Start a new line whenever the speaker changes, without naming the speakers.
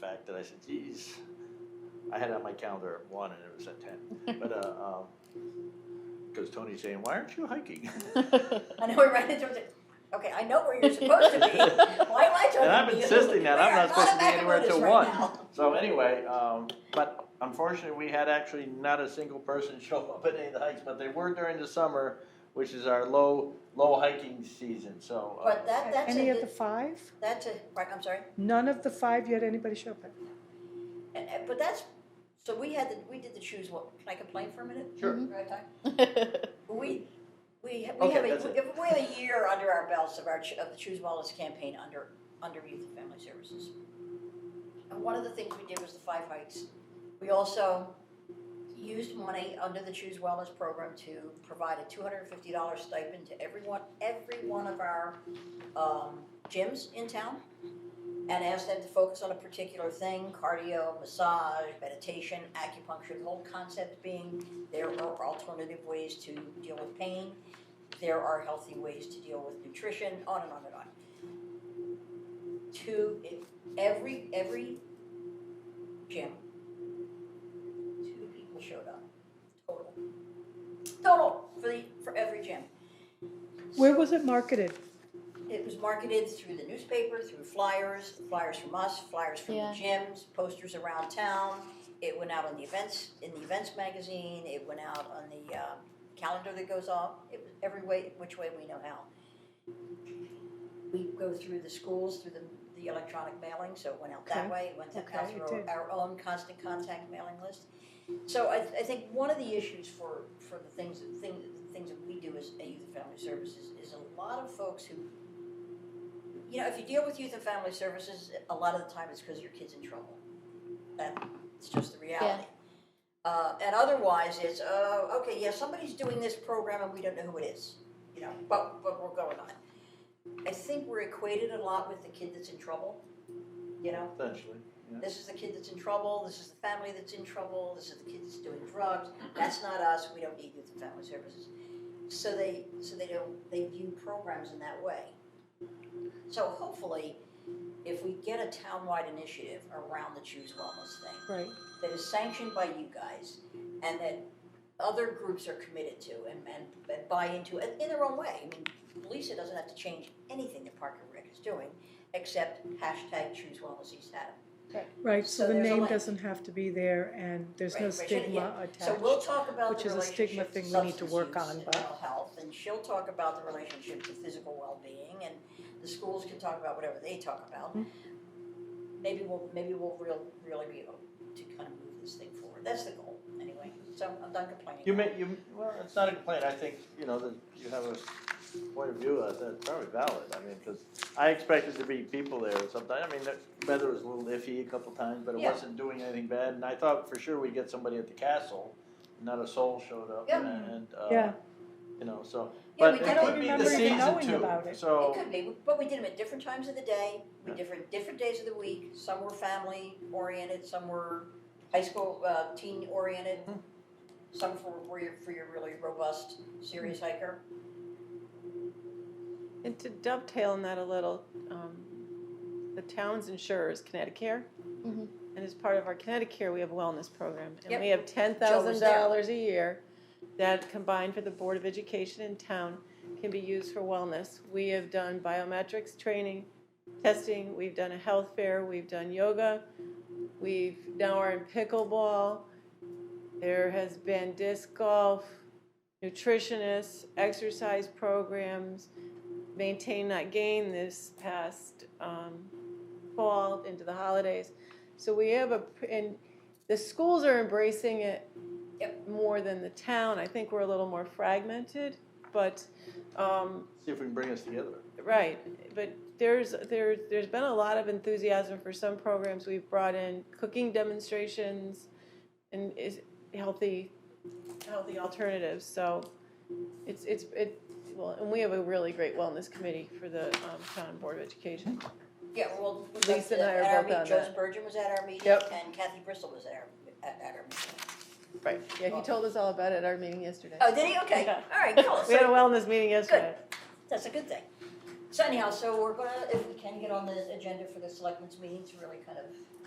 that I said, geez, I had it on my calendar at one and it was at ten. But, uh, um, because Tony's saying, why aren't you hiking?
I know we're right in terms of, okay, I know where you're supposed to be. Why am I
And I'm
trying to be?
insisting that I'm
Where?
not supposed to be
back in
anywhere
Lotus
till
right
one.
now.
So anyway, um, but unfortunately, we had actually not a single person show up at any of the hikes, but they were during the summer, which is our low, low hiking season, so. uh,
But that, that's
Any of the
a,
five?
that's a, right, I'm sorry.
None of the five you had anybody show up at?
And- and- Eh, But that's, so we had, the- we did the choose one, can I complain for a minute?
Sure.
Do I have time? We, we, ha- we
Okay,
have
that's
a,
it.
we have a year under our belts of our, ch- of the Choose Wellness campaign under, under Youth and Family Services. And one of the things we did was the five hikes. We also used money under the Choose Wellness program to provide a two hundred and fifty dollar stipend to everyone, every one of our, um, gyms in town. And asked them to focus on a particular thing, cardio, massage, meditation, acupuncture, the whole concept being there are alternative ways to deal with pain. There are healthy ways to deal with nutrition, on and on and on. Two, if every, every gym, two people showed up, total. Total, for the, for every gym.
Where was it marketed?
It was marketed through the newspaper, through flyers, flyers from us, flyers from
Yeah.
the gyms, posters around town. It went out on the events in the events magazine. It went out on the uh, calendar that goes off. It was every way, which way we know how. We go through the schools through the, the electronic mailing, so it went out that
Okay.
way. It went to
Okay,
out
it
through
did.
our own constant contact mailing list. So I, I think one of the issues for, for the things, thing, things that we do as a youth and family services is a lot of folks who, you know, if you deal with youth and family services, a lot of the time it's because your kid's in trouble. That's just the reality. Uh, and otherwise, it's, uh, okay, yeah, somebody's doing this program and we don't know who it is, you know, but, but we're going on. I think we're equated a lot with the kid that's in trouble, you know?
Essentially, yeah.
this is the kid that's in trouble, this is the family that's in trouble, this is the kid that's doing drugs, that's not us, we don't need youth and family services. So they, so they don't, they view programs in that way. So hopefully, if we get a townwide initiative around the Choose Wellness thing,
Right.
that is sanctioned by you guys and that other groups are committed to and, and, and buy into it in their own way. I mean, Lisa doesn't have to change anything that Parker Rick is doing except hashtag choose wellness East Haddam.
Right,
So
so the
there's a
name
link.
doesn't have to be there and there's
Right,
no
right, shouldn't-
stigma
yeah.
attached.
So we'll talk about
which
the
is a stigma
relationship
thing
to
we need to
substance
work
use
on,
and
but-
mental health, and she'll talk about the relationship to physical well-being, and the schools can talk about whatever they talk about.
Hmm.
Maybe we'll maybe we'll real, really be able to kind of move this thing forward. That's the goal, anyway. So I'm done complaining.
You may, you, well, it's not a complaint, I think, you know, that you have a point of view uh, that's probably valid, I mean, because I expected to be people there sometime, I mean, the weather was a little iffy a couple times, but it
Yeah.
wasn't doing anything bad, and I thought for sure we'd get somebody at the castle, not a soul showed up,
Yeah.
and, uh,
Yeah.
you know, so,
Yeah,
but
we
it
did
don't
it.
could be
remember
the
even
season
knowing
too,
about it.
It
so,
could be, but we did them at different times of the day, we
oh. Yeah.
different, different days of the week, some were family oriented, some were high school, uh, teen oriented.
Mhm.
Some for, were your, for your really robust, serious hiker.
And to dovetail on that a little, um, the town's insurer is Connecticut.
Mhm.
And as part of our Connecticut, we have a wellness program. And
Mm-hmm. Yep.
we have
Joe was there.
$10,000 a year that combined for the Board of Education in town can be used for wellness. We have done biometrics training, testing, we've done a health fair, we've done yoga, we've now are in pickleball. There has been disc golf, nutritionists, exercise programs, maintain not gain this past um, fall into the holidays. So we have a and the schools are embracing it
Yep.
more than the town. I think we're a little more fragmented, but um,
see if we can bring us together.
Right, but there's there there's been a lot of enthusiasm for some programs. We've brought in cooking demonstrations, and is healthy, healthy alternatives. So, it's it's it. Well, and we have a really great wellness committee for the um, town board of education.
Yeah, well, we
Lisa
went to-
and I are
at our
both
meet-
on
Joe
that.
Spurgeon was at our meeting,
Yep.
and Kathy Bristol was at our, at, at our meeting.
Right. Yeah, he told us all about it at our meeting yesterday.
Oh, did he? Okay,
Yeah.
all right, cool,
We had a
so,
wellness meeting yesterday.
that's a good thing. So anyhow, so we're gonna, if we can get on the agenda for the selectmen's meeting to really kind of